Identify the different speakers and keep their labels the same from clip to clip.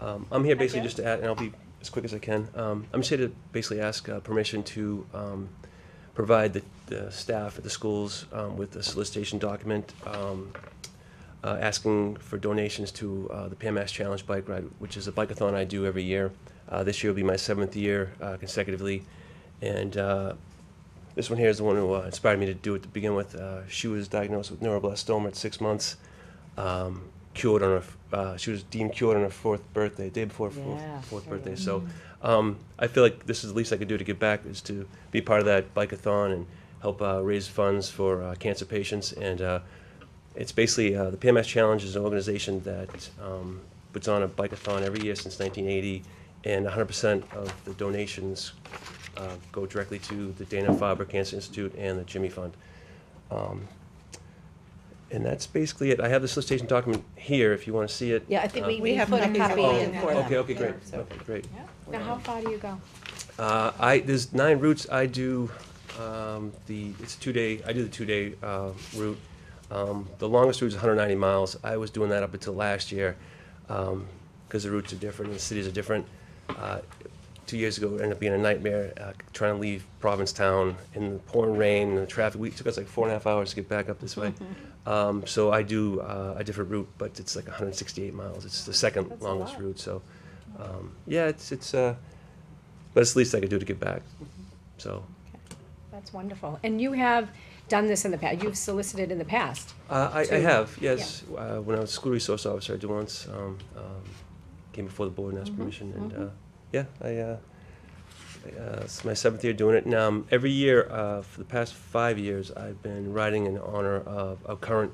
Speaker 1: Um, I'm here basically
Speaker 2: Okay.
Speaker 1: just to add, and I'll be as quick as I can. Um, I'm just here to basically ask uh, permission to um, provide the, the staff at the schools um, with a solicitation document um, uh, asking for donations to uh, the PMS Challenge Bike Ride, which is a bikeathon I do every year. Uh, this year will be my seventh year uh, consecutively, and uh, this one here is the one who uh, inspired me to do it to begin with. Uh, she was diagnosed with neuroblastoma at six months, um, cured on her. f- Uh, she was deemed cured on her fourth birthday, day before her fourth,
Speaker 3: Yeah,
Speaker 1: fourth
Speaker 3: there you
Speaker 1: birthday.
Speaker 3: go.
Speaker 1: So um, I feel like this is the least I could do to give back is to be part of that bikeathon and help uh, raise funds for uh, cancer patients. And uh, it's basically uh, the PMS Challenge is an organization that um, puts on a bikeathon every year since 1980, and 100% of the donations uh, go directly to the Dana Farber Cancer Institute and the Jimmy Fund. Um, and that's basically it. I have the solicitation document here if you want to see it.
Speaker 3: Yeah, I think we
Speaker 2: We
Speaker 3: we
Speaker 2: have
Speaker 3: put a
Speaker 2: copies of
Speaker 3: copy
Speaker 2: all
Speaker 3: in
Speaker 2: that.
Speaker 3: for them.
Speaker 1: Um, Okay, okay, great.
Speaker 3: Yeah, so-
Speaker 1: Okay, great.
Speaker 4: Now, how far do you go?
Speaker 1: Uh, I, there's nine routes. I do, um, the, it's a two-day, I do the two-day, uh, route. Um, the longest route is hundred and ninety miles. I was doing that up until last year, um, because the routes are different and the cities are different. Uh, Two years ago, it ended up being a nightmare, uh, trying to leave Provincetown in the pouring rain and the traffic. We, it took us like four and a half hours to get back up this way. Um, so I do, uh, a different route, but it's like hundred and sixty-eight miles. It's the second
Speaker 2: That's a
Speaker 1: longest
Speaker 2: lot.
Speaker 1: route, so, um, yeah, it's, it's, uh, but it's the least I could do to give back. So
Speaker 4: That's wonderful. And you have done this in the past, you've solicited in the past.
Speaker 1: uh, I, I
Speaker 4: To-
Speaker 1: have, yes. Uh, when I was school resource officer, I did once. Um, um, came before the board and asked
Speaker 4: Mhm,
Speaker 1: permission, and
Speaker 4: mhm.
Speaker 1: uh, yeah, I. Uh, I, uh, it's my seventh year doing it, and um, every year uh, for the past five years, I've been riding in honor of a current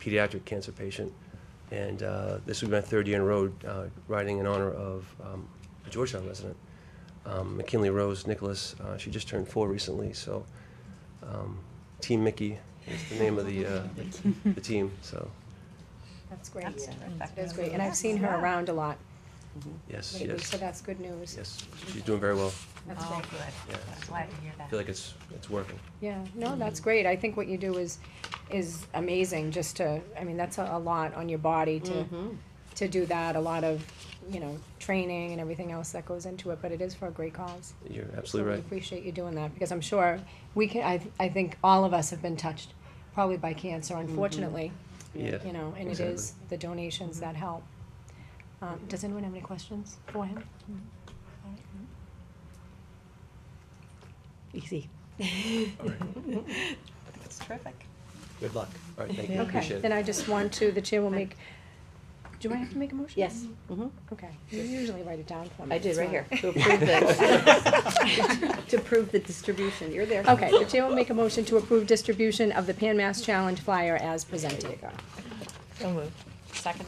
Speaker 1: pediatric cancer patient, and uh, this would be my third year in a row uh, riding in honor of um, a Georgetown resident, um, McKinley Rose Nicholas. Uh, she just turned four recently, so um, Team Mickey is the name of the uh, the, the team. So
Speaker 4: That's great.
Speaker 3: That's terrific.
Speaker 4: That's great. And I've seen her around a lot
Speaker 1: yes,
Speaker 4: lately,
Speaker 1: yes,
Speaker 4: so that's good news.
Speaker 1: yes, she's doing very well.
Speaker 4: That's
Speaker 3: Oh,
Speaker 4: great.
Speaker 3: good.
Speaker 1: Yeah,
Speaker 3: I'm Glad to hear
Speaker 1: I
Speaker 3: that.
Speaker 1: feel like it's it's working.
Speaker 4: Yeah, no, that's great. I think what you do is, is amazing, just to, I mean, that's a, a lot on your body to,
Speaker 3: Mm-hmm.
Speaker 4: to do that, a lot of, you know, training and everything else that goes into it, but it is for a great cause.
Speaker 1: You're
Speaker 4: So
Speaker 1: absolutely
Speaker 4: we
Speaker 1: right.
Speaker 4: appreciate you doing that, because I'm sure we can, I, I think all of us have been touched, probably by cancer
Speaker 3: Mm-hmm.
Speaker 4: unfortunately,
Speaker 1: Yeah.
Speaker 4: you know, and it
Speaker 1: Exactly.
Speaker 4: is the donations that help. Um, does anyone have any questions for him?
Speaker 3: Easy.
Speaker 2: It's terrific.
Speaker 1: Good luck. All right, thank you.
Speaker 3: Yeah.
Speaker 1: Appreciate
Speaker 4: Okay,
Speaker 1: it.
Speaker 4: then I just want to, the chair will make, do I have to make a motion?
Speaker 3: Yes, mhm.
Speaker 4: Okay, you usually write it down for me.
Speaker 3: I did,
Speaker 4: It's
Speaker 3: right
Speaker 4: not-
Speaker 3: here. To approve the, to approve the distribution, you're there.
Speaker 4: Okay, the chair will make a motion to approve distribution of the Pan Mass Challenge flyer as
Speaker 3: There you
Speaker 4: presented.
Speaker 3: go.
Speaker 5: So moved.
Speaker 3: Second.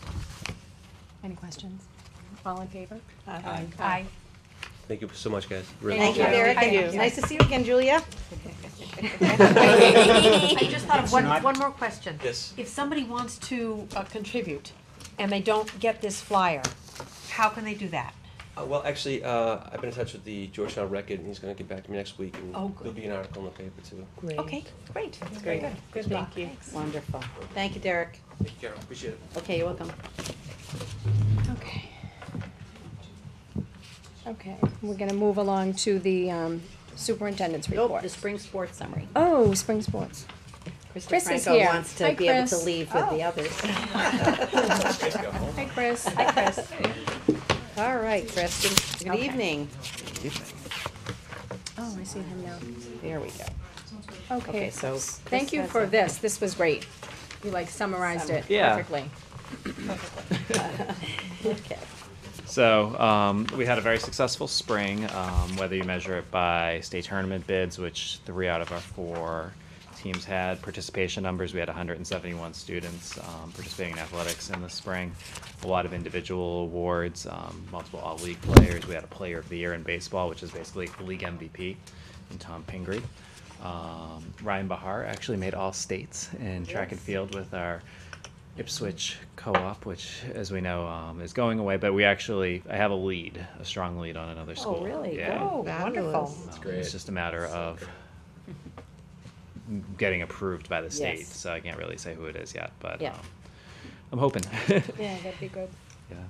Speaker 4: Any questions? All in favor?
Speaker 3: Aye.
Speaker 4: Aye.
Speaker 1: Thank you so much, guys. Really
Speaker 3: Thank you,
Speaker 4: you.
Speaker 3: Derek.
Speaker 4: Thank you.
Speaker 3: Nice to see you again, Julia.
Speaker 6: I just thought of one, one more question.
Speaker 1: Yes.
Speaker 6: If somebody wants to uh, contribute and they don't get this flyer, how can they do that?
Speaker 1: Uh, well, actually, uh, I've been in touch with the Georgetown Record, and he's going to get back to me next week, and
Speaker 6: Oh, good.
Speaker 1: there'll be an article in the paper too.
Speaker 5: Great.
Speaker 6: Okay, great. That's
Speaker 3: great.
Speaker 6: Good luck.
Speaker 5: Thank you.
Speaker 3: Wonderful. Thank you, Derek.
Speaker 1: Thank you, Carol. Appreciate it.
Speaker 3: Okay, you're welcome.
Speaker 4: Okay. Okay, we're gonna move along to the um, superintendent's
Speaker 3: Nope,
Speaker 4: report.
Speaker 3: the spring sports summary.
Speaker 4: Oh, spring sports.
Speaker 3: Krista
Speaker 4: Chris is
Speaker 3: Franco
Speaker 4: here.
Speaker 3: wants
Speaker 4: Hi,
Speaker 3: to be able to
Speaker 4: Chris. Oh.
Speaker 3: leave with the others.
Speaker 4: Hi, Chris.
Speaker 3: Hi, Chris. All right, Chris, good- good
Speaker 4: Okay.
Speaker 3: evening.
Speaker 4: Oh, I see him now.
Speaker 3: There we go.
Speaker 4: Okay,
Speaker 3: Okay, so
Speaker 4: thank
Speaker 3: Chris
Speaker 4: you
Speaker 3: has
Speaker 4: for
Speaker 3: a-
Speaker 4: this, this was great. You like summarized it
Speaker 7: Yeah.
Speaker 4: perfectly.
Speaker 3: Okay.
Speaker 7: So um, we had a very successful spring, um, whether you measure it by state tournament bids, which three out of our four teams had participation numbers. We had 171 students um, participating in athletics in the spring. A lot of individual awards, um, multiple all league players. We had a player of the year in baseball, which is basically league MVP, and Tom Pingree. Um, Ryan Bahar actually made all states in track and field with our Ipswich Co-op, which, as we know, um, is going away. But we actually, I have a lead, a strong lead on another school.
Speaker 3: Oh, really?
Speaker 7: Yeah.
Speaker 3: Oh,
Speaker 6: Wonderful.
Speaker 7: Um, It's just a matter of m- getting approved by the state.
Speaker 3: Yes.
Speaker 7: So I can't really say who it is yet, but
Speaker 3: Yeah.
Speaker 7: um, I'm hoping.
Speaker 4: Yeah, that'd be good.
Speaker 7: Yeah.